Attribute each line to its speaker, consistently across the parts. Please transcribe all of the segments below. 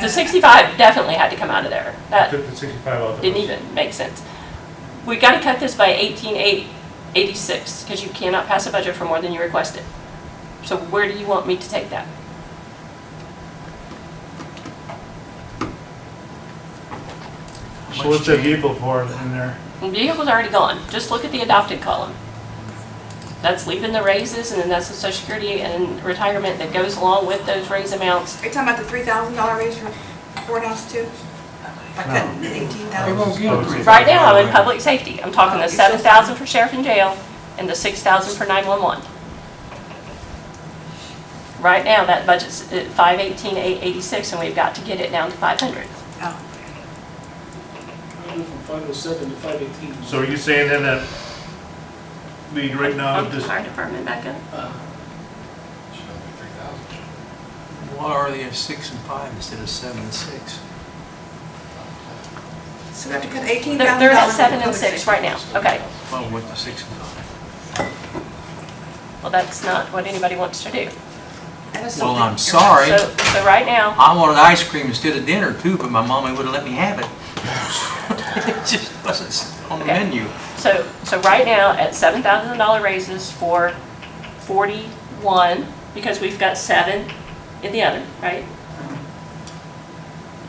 Speaker 1: The 65 definitely had to come out of there. That
Speaker 2: Took the sixty-five out. that
Speaker 1: didn't
Speaker 2: was-
Speaker 1: even make sense. We got to cut this by 1886 because you cannot pass a budget for more than you requested. So where do you want me to take that?
Speaker 3: So what's the vehicle for in there?
Speaker 1: The Vehicle's already gone. Just look at the adopted column. That's leaving the raises and then that's the social security and retirement that goes along with those raise amounts.
Speaker 4: Are you talking about the three thousand dollar raise for courthouse too? Like that eighteen
Speaker 5: They
Speaker 4: thousand?
Speaker 5: won't get a three.
Speaker 1: Right now, I'm in public safety. I'm talking the
Speaker 4: Oh, you said-
Speaker 1: 7,000 for sheriff and jail and the 6,000 for 911. Right now, that budget's at 518,886 and we've got to get it down to 500.
Speaker 4: Oh,
Speaker 6: I went from five oh seven to five eighteen.
Speaker 3: So are you saying then that we right
Speaker 2: Oh,
Speaker 3: now
Speaker 1: Um,
Speaker 3: just,
Speaker 1: Fire department back up.
Speaker 6: Uh,
Speaker 5: Why are they at six and five instead of seven and six?
Speaker 4: So we have to cut eighteen
Speaker 1: They're
Speaker 4: thousand dollars.
Speaker 1: they're at 7 and 6 right now. Okay.
Speaker 5: Well, with the six and five.
Speaker 1: Well, that's not what anybody wants to do.
Speaker 5: Well, I'm sorry.
Speaker 1: So, so right now,
Speaker 5: I wanted ice cream instead of dinner too, but my mommy wouldn't let me have it. It just wasn't on the
Speaker 1: Okay.
Speaker 5: menu.
Speaker 1: So, so right now, at seven thousand dollar raises for forty-one, because we've got seven in the other, right?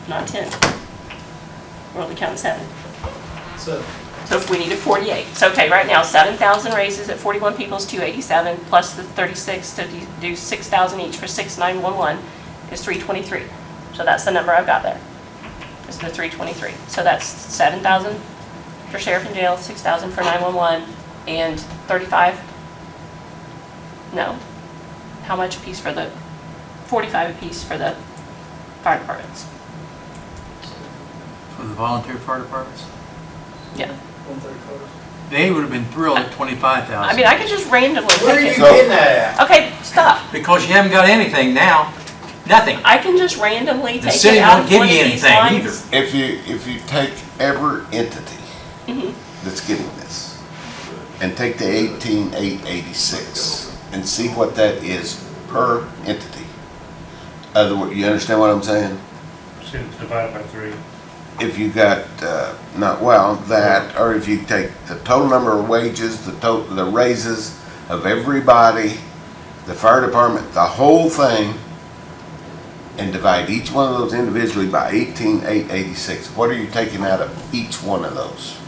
Speaker 1: Not ten. We're only counting seven.
Speaker 6: So,
Speaker 1: So if we needed forty-eight, so okay, right now, seven thousand raises at forty-one people's two eighty-seven, plus the thirty-six to do- do six thousand each for six nine one one is three twenty-three. So that's the number I've got there. It's the three twenty-three. So that's seven thousand for sheriff and jail, six thousand for nine-one-one, and thirty-five? No? How much a piece for the, forty-five a piece for the fire departments?
Speaker 5: For the volunteer fire departments,
Speaker 1: Yeah.
Speaker 6: one thirty-five.
Speaker 5: they would have been thrilled at twenty-five
Speaker 1: I
Speaker 5: thousand.
Speaker 1: mean, I could just randomly
Speaker 7: Where are you
Speaker 1: pick it.
Speaker 7: getting that
Speaker 1: Okay, stop.
Speaker 5: Because you haven't got anything now, nothing.
Speaker 1: I can just randomly
Speaker 5: The
Speaker 1: take
Speaker 5: city
Speaker 1: it out
Speaker 5: won't
Speaker 1: of
Speaker 5: give
Speaker 1: one of
Speaker 5: you
Speaker 1: these
Speaker 5: anything either.
Speaker 1: lines.
Speaker 7: at? If you, if you take every entity that's getting this and take the eighteen eight eighty-six and see what that is per entity. Other, wo- you understand what I'm saying?
Speaker 2: See, it's divided by three.
Speaker 7: If you got, uh, not, well, that, or if you take the total number of wages, the total, the raises of everybody, the fire department, the whole thing, and divide each one of those individually by eighteen eight eighty-six, what are you taking out of each one of those?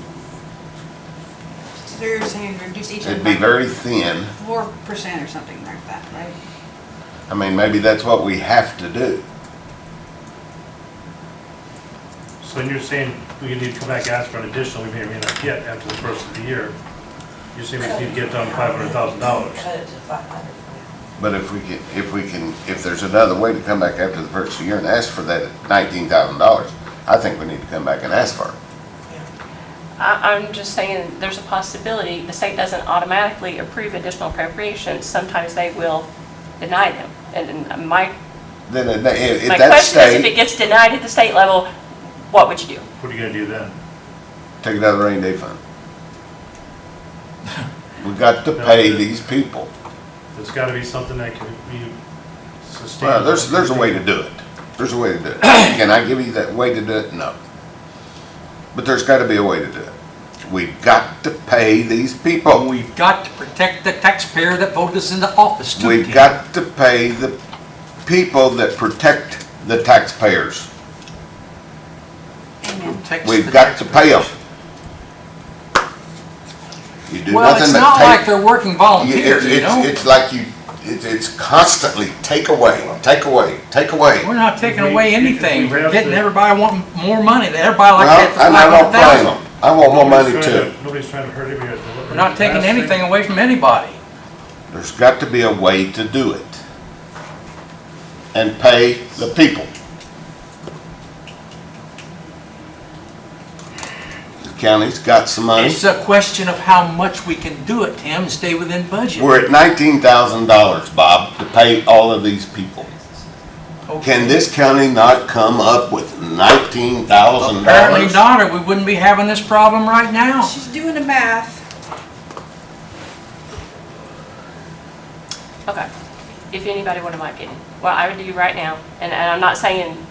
Speaker 4: So you're saying reduce each one
Speaker 7: It'd be
Speaker 4: by
Speaker 7: very thin.
Speaker 4: four percent or something like that, right?
Speaker 7: I mean, maybe that's what we have to do.
Speaker 2: So you're saying we need to come back and ask for an additional we may or may not get after the first of the year. You're saying we need to get down five hundred thousand dollars.
Speaker 8: Cut it to five hundred for now.
Speaker 7: But if we can, if we can, if there's another way to come back after the first year and ask for that nineteen thousand dollars, I think we need to come back and ask for it.
Speaker 1: I, I'm just saying, there's a possibility, the state doesn't automatically approve additional appropriations, sometimes they will deny them. And and my,
Speaker 7: Then at that- if,
Speaker 1: my
Speaker 7: if that
Speaker 1: question is, if it
Speaker 7: state,
Speaker 1: gets denied at the state level, what would you do?
Speaker 2: What are you gonna do then?
Speaker 7: take it out of the rainy day fund. We got to
Speaker 2: No,
Speaker 7: pay
Speaker 2: but-
Speaker 7: these people.
Speaker 2: There's gotta be something that can be
Speaker 7: Well,
Speaker 2: sustained.
Speaker 7: there's, there's a way to do it. There's a way to do it. Can I give you that way to do it? No. But there's gotta be a way to do it. We've got to pay these people.
Speaker 5: We've got to protect the taxpayer that voted us into office too.
Speaker 7: We've
Speaker 5: Ken.
Speaker 7: got to pay the people that protect the taxpayers.
Speaker 4: Amen.
Speaker 5: Protects the
Speaker 7: We've got to pay them.
Speaker 5: taxpayers.
Speaker 7: You do
Speaker 5: Well, it's
Speaker 7: nothing
Speaker 5: not
Speaker 7: but
Speaker 5: like
Speaker 7: take.
Speaker 5: they're working
Speaker 7: You-
Speaker 5: volunteers,
Speaker 7: it's-
Speaker 5: you
Speaker 7: it's-
Speaker 5: know?
Speaker 7: It's like you, it's, it's constantly take away, take away, take away.
Speaker 5: We're not taking
Speaker 2: If we-
Speaker 5: away
Speaker 2: if we
Speaker 5: anything. We're
Speaker 2: have
Speaker 5: getting
Speaker 2: to-
Speaker 5: everybody wanting more money. Everybody like that
Speaker 7: Well,
Speaker 5: for
Speaker 7: and I
Speaker 5: five
Speaker 7: don't
Speaker 5: hundred
Speaker 7: blame
Speaker 5: thousand.
Speaker 7: them. I want more money
Speaker 2: Nobody's trying
Speaker 7: too.
Speaker 2: to- Nobody's trying to hurt anybody.
Speaker 5: We're not taking
Speaker 2: Last thing-
Speaker 5: anything away from anybody.
Speaker 7: There's got to be a way to do it. And pay the people. The county's got some money.
Speaker 5: It's a question of how much we can do it, Tim, and stay within budget.
Speaker 7: We're at nineteen thousand dollars, Bob, to pay all of these people. Can this county not come up with nineteen thousand
Speaker 5: Apparently
Speaker 7: dollars?
Speaker 5: not, or we wouldn't be having this problem right now.
Speaker 4: She's doing the math.
Speaker 1: Okay, if anybody wanted my opinion, what I would do right now, and, and I'm not saying